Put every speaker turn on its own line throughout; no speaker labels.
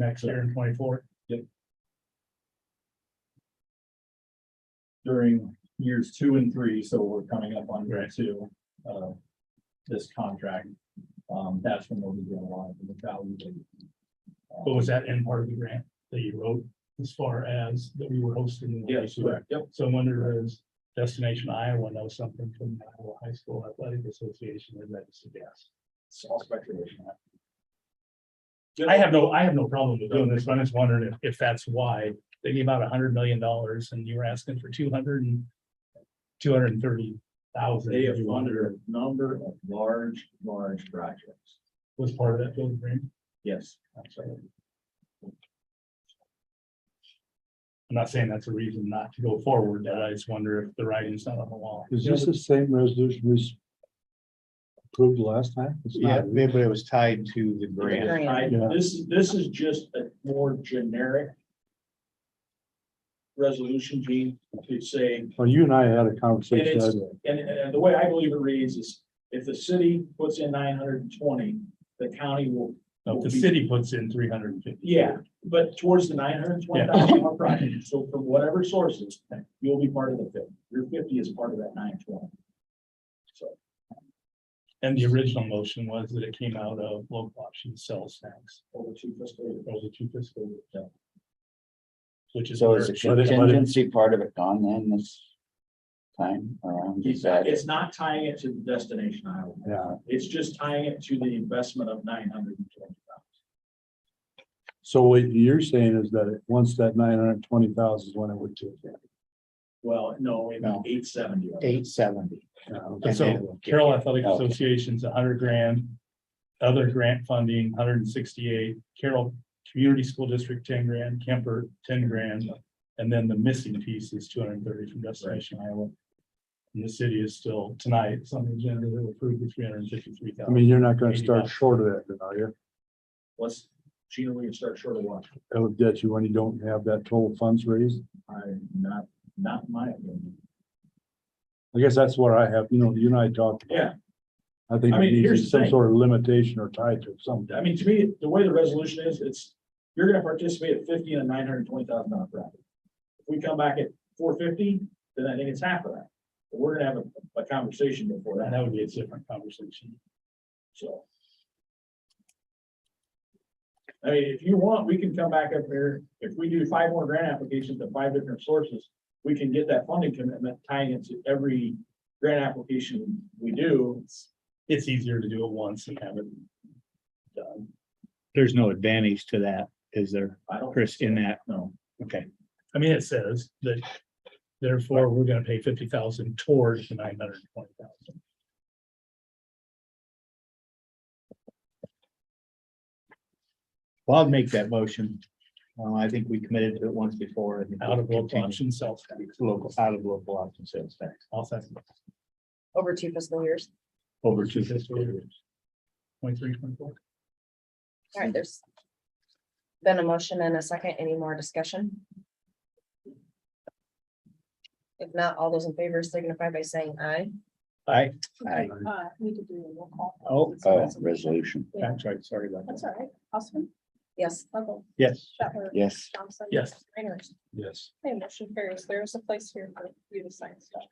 next year in twenty-four.
during years two and three, so we're coming up on year
Right.
two of this contract. Um, that's when we'll be doing a lot of the value. date. uh,
But
Oh,
was that in part of the grant that you wrote as far as that we were hosting? the
Yes, correct, yep,
So I wonder is Destination Iowa knows something from the Iowa High School Athletic Association that led us to gas.
it's all speculation.
I have no, I have no problem with doing this, but I'm just wondering if, if that's why they gave out a hundred million dollars and you were asking for two hundred and two hundred and thirty thousand.
They have funded a number of large, large projects.
Was part of that building grant.
Yes, absolutely.
I'm not saying that's a reason not to go forward, but I just wonder if the writing's not on the wall.
Is this the same resolution we s- approved last time? It's
Yeah,
not,
but it was tied to the grant.
I- This, is this is just a more generic resolution, Gene, to say
well, you and I had a
It
conversation.
is.
the other day.
And, and the way I believe it reads is, if the city puts in nine hundred and twenty, the county will,
No, The city puts in three hundred and fifty.
yeah, but towards the nine hundred and twenty thousand dollar project, so from whatever sources, you'll be part of the fifty. Your fifty is part of that nine twenty.
And the original motion was that it came out of local option sales tax
Over two fiscal years.
over two fiscal years.
Yeah.
Which is.
So
where
is
it
the
should have been.
contingency part of it gone then this time around? Is
It's
that
not,
it?
it's not tying it to the destination Iowa.
Yeah,
It's just tying it to the investment of nine hundred and twenty thousand.
so what you're saying is that it- once that nine hundred and twenty thousand is when it would do. it.
Well, no, it
No.
eight seventy.
Eight seventy.
Yeah, okay.
And So Carroll Athletic
Oh.
Okay.
Association's a hundred grand. Other grant funding, hundred and sixty-eight, Carroll Community School District, ten grand, Kemper, ten grand. And then the missing piece is two hundred and thirty from Destination Iowa. And the city is still tonight, something generally will approve the three hundred and fifty-three
I
thousand.
mean, you're not gonna start short of that, then, are you?
Let's, Gina, we can start short of one.
That would get you when you don't have that total funds raised.
I'm not, not my opinion.
I guess that's what I have, you know, you and I talked. about.
Yeah.
I think
I mean,
it needs to be
here's the
some
thing.
sort of limitation or tied to something.
I mean, to me, the way the resolution is, it's, you're gonna participate at fifty and a nine hundred and twenty thousand dollar bracket. If we come back at four fifty, then I think it's half of that. But We're gonna have a, a conversation before
And
that,
that would be a different conversation.
so. I mean, if you want, we can come back up here, if we do five more grant applications at five different sources, we can get that funding commitment tying into every grant application we do.
It's easier to do it once and have it. done.
There's no advantage to that, is there,
I don't.
Chris, in that?
No.
Okay,
I mean, it says that therefore we're gonna pay fifty thousand towards the nine hundred and twenty thousand.
well, I'll make that motion. Uh, I think we committed to it once before. I think we'll
out of local
continue.
option sales tax.
Local, out of local option sales tax,
I'll second.
over two fiscal years.
over two fiscal years.
Point three, point four.
All right, there's been a motion and a second. Any more discussion? If not, all those in favor signify by saying aye.
Aye.
Okay,
Aye.
uh, we could do a roll call.
Oh,
Oh, resolution,
that's right, sorry about
That's
that.
all right. Austin,
Yes,
Lovell,
Yes,
Shetler,
yes.
Thompson.
Yes.
Reiner.
Yes.
Hey, motion carries. There is a place here for you to sign stuff.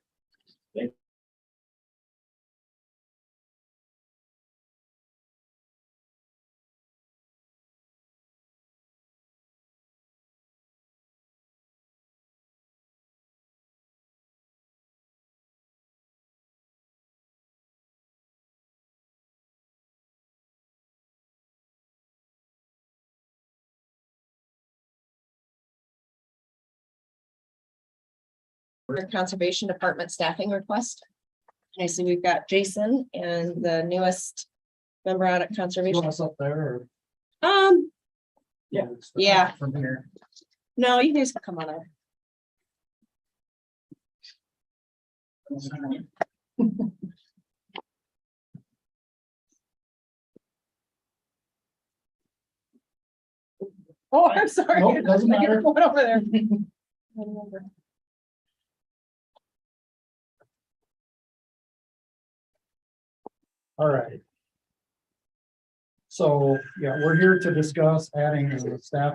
for Conservation Department staffing request. I see we've got Jason and the newest member out at Conservation.
up there?
Um,
Yeah.
Yeah.
From here.
no, you guys can come on up.
Oh, I'm sorry.
Nope, doesn't
I get
matter.
the one over there. Remember.
All right.
So, yeah, we're here to discuss adding a staff